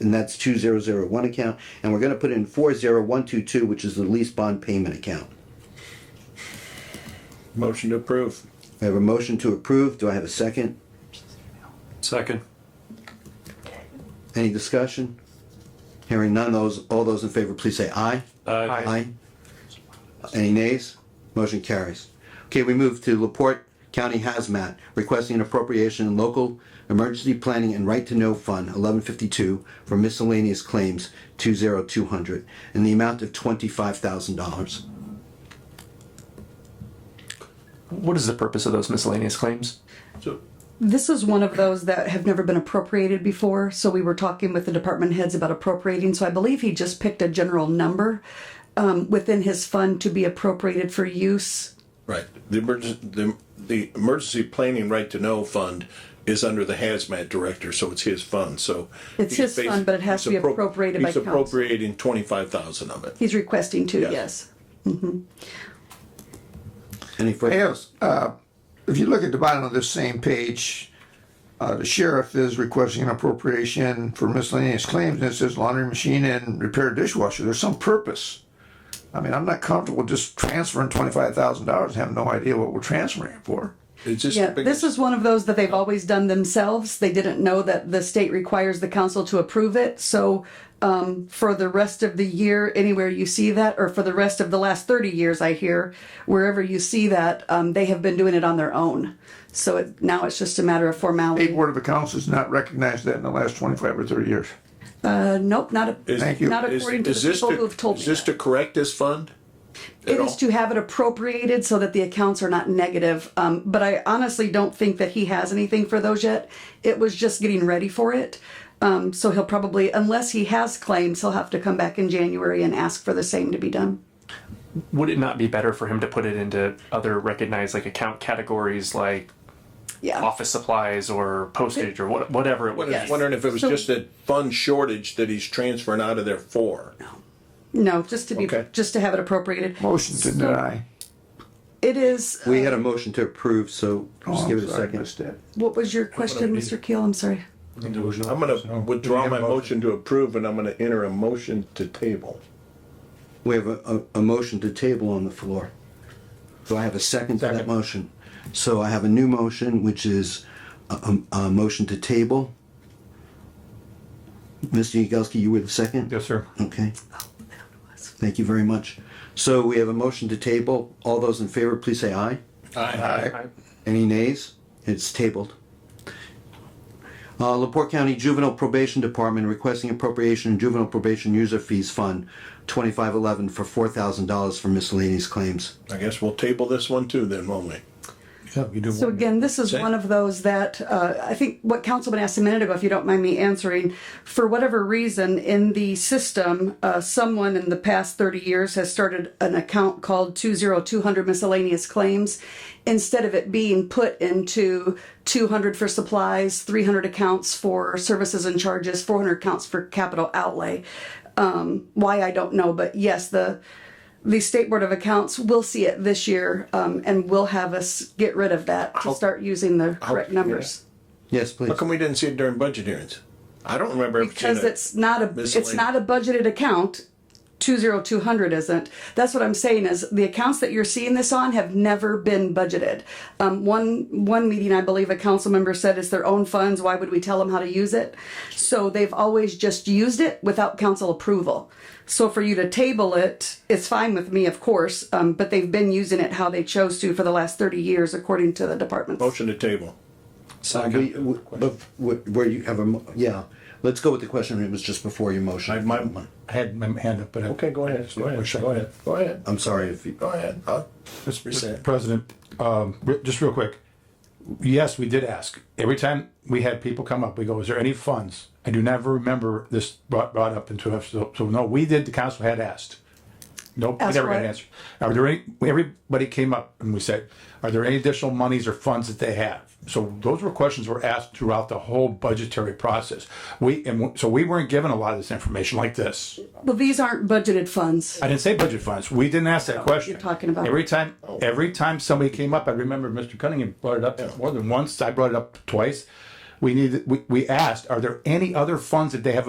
and that's two zero zero one account, and we're gonna put in four zero one two two, which is the lease bond payment account. Motion to approve. I have a motion to approve, do I have a second? Second. Any discussion? Hearing none, those, all those in favor, please say aye. Uh, Aye. Aye. Any nays? Motion carries. Okay, we move to Laporte County Hazmat, requesting an appropriation in local emergency planning and right to know fund eleven fifty-two for miscellaneous claims two zero two hundred in the amount of twenty-five thousand dollars. What is the purpose of those miscellaneous claims? So, This is one of those that have never been appropriated before, so we were talking with the department heads about appropriating, so I believe he just picked a general number um, within his fund to be appropriated for use. right, the emergency, the, the emergency planning right to know fund is under the hazmat director, so it's his fund, so. It's he's his fund, basi- but it has to be he's appro- appropriated by He's council. appropriating twenty-five thousand of it. He's requesting to, Yes. yes. Any I further? have, uh, if you look at the bottom of this same page, uh, the sheriff is requesting an appropriation for miscellaneous claims, and it says laundry machine and repair dishwasher. There's some purpose. I mean, I'm not comfortable just transferring twenty-five thousand dollars and have no idea what we're transferring it for. It's just. Yeah, the this is one of those that they've always done themselves. They didn't know that the state requires the council to approve it, so um, for the rest of the year, anywhere you see that, or for the rest of the last thirty years, I hear, wherever you see that, um, they have been doing it on their own. So it, now it's just a matter of State formality. Board of Accounts has not recognized that in the last twenty-five or thirty years. Uh, nope, not, Is- Thank you. not is- according to is the this people who've told me Is this that. to correct this fund? at It is all? to have it appropriated so that the accounts are not negative. Um, but I honestly don't think that he has anything for those yet. It was just getting ready for it. Um, so he'll probably, unless he has claims, he'll have to come back in January and ask for the same to be done. Would it not be better for him to put it into other recognized like account categories like Yeah. office supplies or postage or what, whatever it I would was be? wondering if it was So- just a fund shortage that he's transferring out of there for. No, just to be, Okay. just to have it appropriated. Motion to deny. It is, uh, We had a motion to approve, so just Oh, give I'm it a sorry, I second. missed that. what was your question, Mr. Keel? I'm sorry. I'm gonna withdraw my motion to approve and I'm gonna enter a motion to table. We have a, a, a motion to table on the floor. Do I have a second to that motion? So I have a new motion, which is a, a, a motion to table. Mr. Yagowski, you were the second? Yes, sir. Okay. Thank you very much. So we have a motion to table. All those in favor, please say aye. Aye. Any nays? It's tabled. Uh, Laporte County Juvenile Probation Department requesting appropriation in juvenile probation user fees fund twenty-five eleven for four thousand dollars for miscellaneous claims. I guess we'll table this one too then, won't we? Yeah, you do. So again, this is one of those that, uh, I think what Councilman asked a minute ago, if you don't mind me answering, for whatever reason, in the system, uh, someone in the past thirty years has started an account called two zero two hundred miscellaneous claims. Instead of it being put into two hundred for supplies, three hundred accounts for services and charges, four hundred accounts for capital outlay. Um, why, I don't know, but yes, the, the State Board of Accounts will see it this year, um, and will have us get rid of that to start using the correct numbers. Yes, please. How come we didn't see it during budget hearings? I don't remember. ever seeing Because it. it's not a, it's miscellaneous. not a budgeted account, two zero two hundred isn't. That's what I'm saying is the accounts that you're seeing this on have never been budgeted. Um, one, one meeting, I believe a council member said it's their own funds, why would we tell them how to use it? So they've always just used it without council approval. So for you to table it, it's fine with me, of course, um, but they've been using it how they chose to for the last thirty years, according to the department. Motion to table. We- we- but wh- Where you have a, mo- yeah, let's go with the question that was just before your I, motion. my, I had my hand up, but I. okay, go ahead, go ahead, go ahead, go ahead, I'm sorry if you, go ahead. I'll- Mr. President, um, re- just real quick. Yes, we did ask. Every time we had people come up, we go, is there any funds? I do never remember this brought, brought up into us. So, so no, we did, the council had asked. Nope, we Asked never got what? an answer. Are there any, everybody came up and we said, are there any additional monies or funds that they have? So those were questions were asked throughout the whole budgetary process. We, and w- so we weren't given a lot of this information like this. Well, these aren't budgeted funds. I didn't say budget funds. We didn't ask that question. Oh, you're talking about- Every time, every time somebody came up, I remember Mr. Cunningham brought it up more than once. I brought it up twice. We needed, we, we asked, are there any other funds that they have